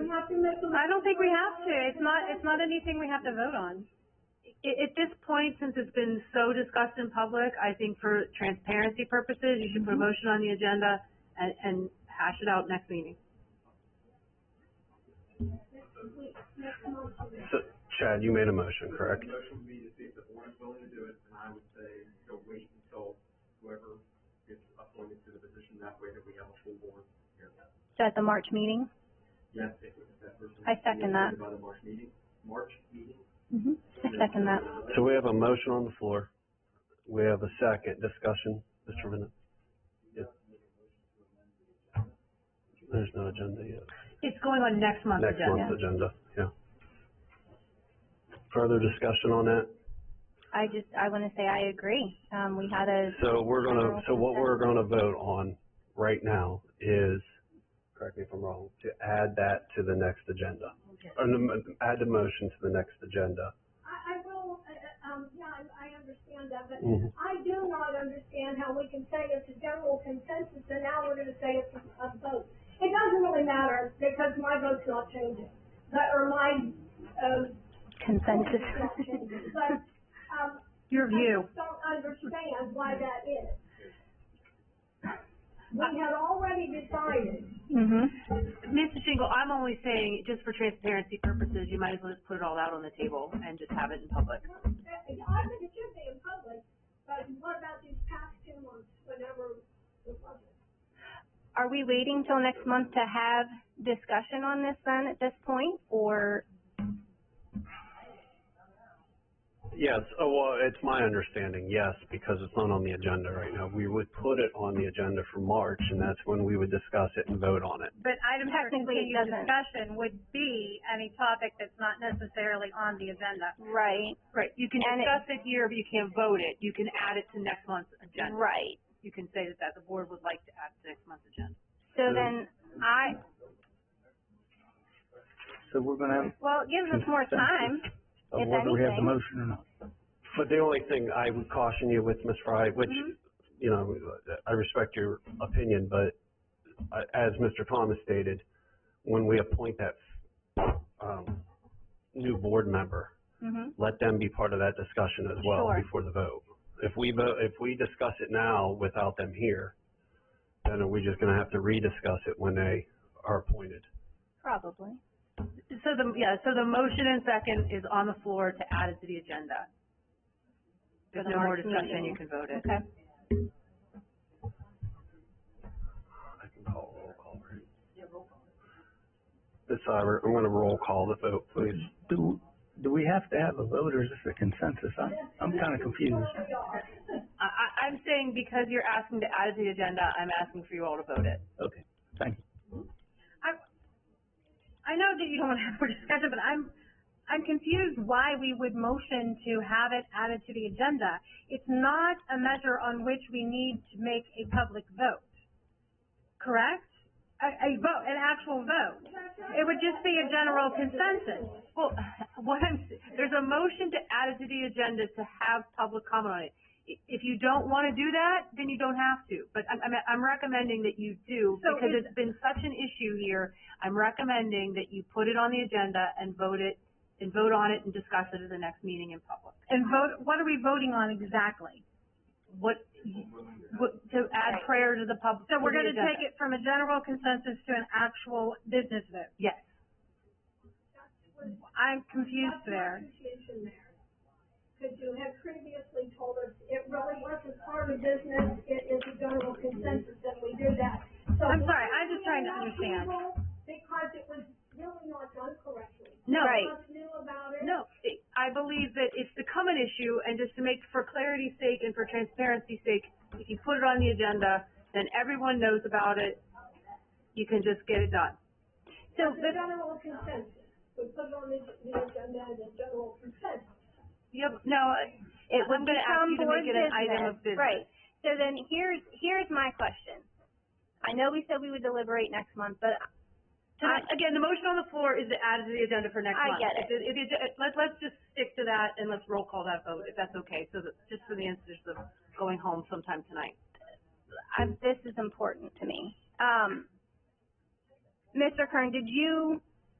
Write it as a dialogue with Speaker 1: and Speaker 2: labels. Speaker 1: discussing this?
Speaker 2: I don't think we have to. It's not, it's not anything we have to vote on.
Speaker 1: At, at this point, since it's been so discussed in public, I think for transparency purposes, you should
Speaker 2: Mm-hmm.
Speaker 1: put a motion on the agenda and, and hash it out next meeting.
Speaker 3: So, Chad, you made a motion, correct?
Speaker 4: The motion would be to see if the board is willing to do it, and I would say, go wait until whoever gets appointed to the position, that way that we have a full board here.
Speaker 5: So at the March meeting?
Speaker 4: Yes, if if that person.
Speaker 5: I second that.
Speaker 4: By the March meeting, March meeting.
Speaker 5: Mm-hmm. I second that.
Speaker 3: So we have a motion on the floor. We have a second discussion, Mr. Bennett. Yeah. There's no agenda yet.
Speaker 1: It's going on next month's
Speaker 3: Next
Speaker 1: agenda.
Speaker 3: month's agenda, yeah. Further discussion on that?
Speaker 5: I just, I wanna say I agree. Um, we had a,
Speaker 3: So we're gonna, so what we're gonna vote on right now is, correct me if I'm wrong, to add that to the next agenda. Or the mo- add the motion to the next agenda.
Speaker 6: I, I will, uh, uh, um, yeah, I, I understand that, but
Speaker 3: Mhm.
Speaker 6: I do not understand how we can say it's a general consensus and now we're gonna say it's a, a vote. It doesn't really matter because my vote's not changing, but, or my, uh,
Speaker 5: consensus.
Speaker 6: vote's not changing, but, um,
Speaker 1: Your
Speaker 6: I
Speaker 1: view.
Speaker 6: just don't understand why that is. We had already decided,
Speaker 5: hmm
Speaker 1: Mrs. Shingle, I'm only saying, just for transparency purposes, you might as well just put it all out on the table and just have it in public.
Speaker 6: uh, I think it should be in public, but what about these past two months whenever it wasn't?
Speaker 5: Are we waiting till next month to have discussion on this then at this point, or?
Speaker 3: Yes, oh, well, it's my understanding, yes, because it's not on the agenda right now. We would put it on the agenda for March, and that's when we would discuss it and vote on it.
Speaker 2: But items for
Speaker 5: Technically, it
Speaker 2: continued
Speaker 5: doesn't.
Speaker 2: discussion would be any topic that's not necessarily on the agenda.
Speaker 5: Right,
Speaker 1: Right, you can
Speaker 5: And it-
Speaker 1: discuss it here, but you can't vote it. You can add it to next month's agenda.
Speaker 5: right.
Speaker 1: You can say that, that the board would like to add to next month's agenda.
Speaker 5: So then, I,
Speaker 7: So we're gonna have,
Speaker 5: well, it gives us more time,
Speaker 7: of
Speaker 5: if
Speaker 7: whether we have the
Speaker 5: anything.
Speaker 7: motion or not.
Speaker 3: But the only thing I would caution you with, Ms. Fry, which, you know, I respect your opinion, but uh, as Mr. Thomas stated, when we appoint that, um, new board member,
Speaker 5: Mhm.
Speaker 3: let them be part of that discussion as well
Speaker 5: Sure.
Speaker 3: before the vote. If we vote, if we discuss it now without them here, then are we just gonna have to rediscuss it when they are appointed?
Speaker 5: probably.
Speaker 1: So the, yeah, so the motion and second is on the floor to add it to the agenda.
Speaker 5: For
Speaker 1: There's
Speaker 5: the
Speaker 1: no more
Speaker 5: March
Speaker 1: discussion, you
Speaker 5: meeting.
Speaker 1: can vote it.
Speaker 5: Okay.
Speaker 3: I can call a roll call, right? Ms. Seibert, I'm gonna roll call the vote, please.
Speaker 7: Do, do we have to have a vote or is this a consensus? I'm, I'm kinda confused.
Speaker 1: I, I, I'm saying because you're asking to add it to the agenda, I'm asking for you all to vote it.
Speaker 7: Okay, thank you.
Speaker 2: I know that you don't want to have more discussion, but I'm, I'm confused why we would motion to have it added to the agenda. It's not a measure on which we need to make a public vote, correct? A, a vote, an actual vote. It would just be a general consensus.
Speaker 1: Well, what I'm, s- there's a motion to add it to the agenda to have public comment on it. I- If you don't want to do that, then you don't have to, but I'm, I'm, I'm recommending that you do,
Speaker 2: So
Speaker 1: because
Speaker 2: is-
Speaker 1: it's been such an issue here. I'm recommending that you put it on the agenda and vote it, and vote on it and discuss it at the next meeting in public.
Speaker 2: And vote, what are we voting on exactly?
Speaker 1: What, what, to add prayer to the pub.
Speaker 2: So we're gonna take it from a general consensus to an actual business vote.
Speaker 1: Yes.
Speaker 2: I'm confused there.
Speaker 6: Confusion there. Because you had previously told us it really wasn't part of business, it is a general consensus and we do that. So
Speaker 2: I'm
Speaker 6: we-
Speaker 2: sorry, I'm just trying to
Speaker 6: we allow
Speaker 2: understand.
Speaker 6: people Because it was really not done correctly.
Speaker 1: No.
Speaker 5: Right.
Speaker 6: None of us knew about it.
Speaker 1: No, it- I believe that it's become an issue, and just to make, for clarity's sake and for transparency's sake, if you put it on the agenda, then everyone knows about it, you can just get it done.
Speaker 6: So the general consensus, we put it on the, the agenda as a general consensus.
Speaker 1: Yep, no, uh, I-
Speaker 5: It would
Speaker 1: I'm gonna ask
Speaker 5: become
Speaker 1: you to
Speaker 5: board
Speaker 1: make it an item of
Speaker 5: business,
Speaker 1: business.
Speaker 5: right. So then here's, here's my question. I know we said we would deliberate next month, but
Speaker 1: So that- again, the motion on the floor is to add it to the agenda for next
Speaker 5: I
Speaker 1: month.
Speaker 5: get it.
Speaker 1: If if you- let, let's just stick to that, and let's roll call that vote, if that's okay, so that, just for the instance of going home sometime tonight.
Speaker 5: I, this is important to me. Um, Mr. Kern, did you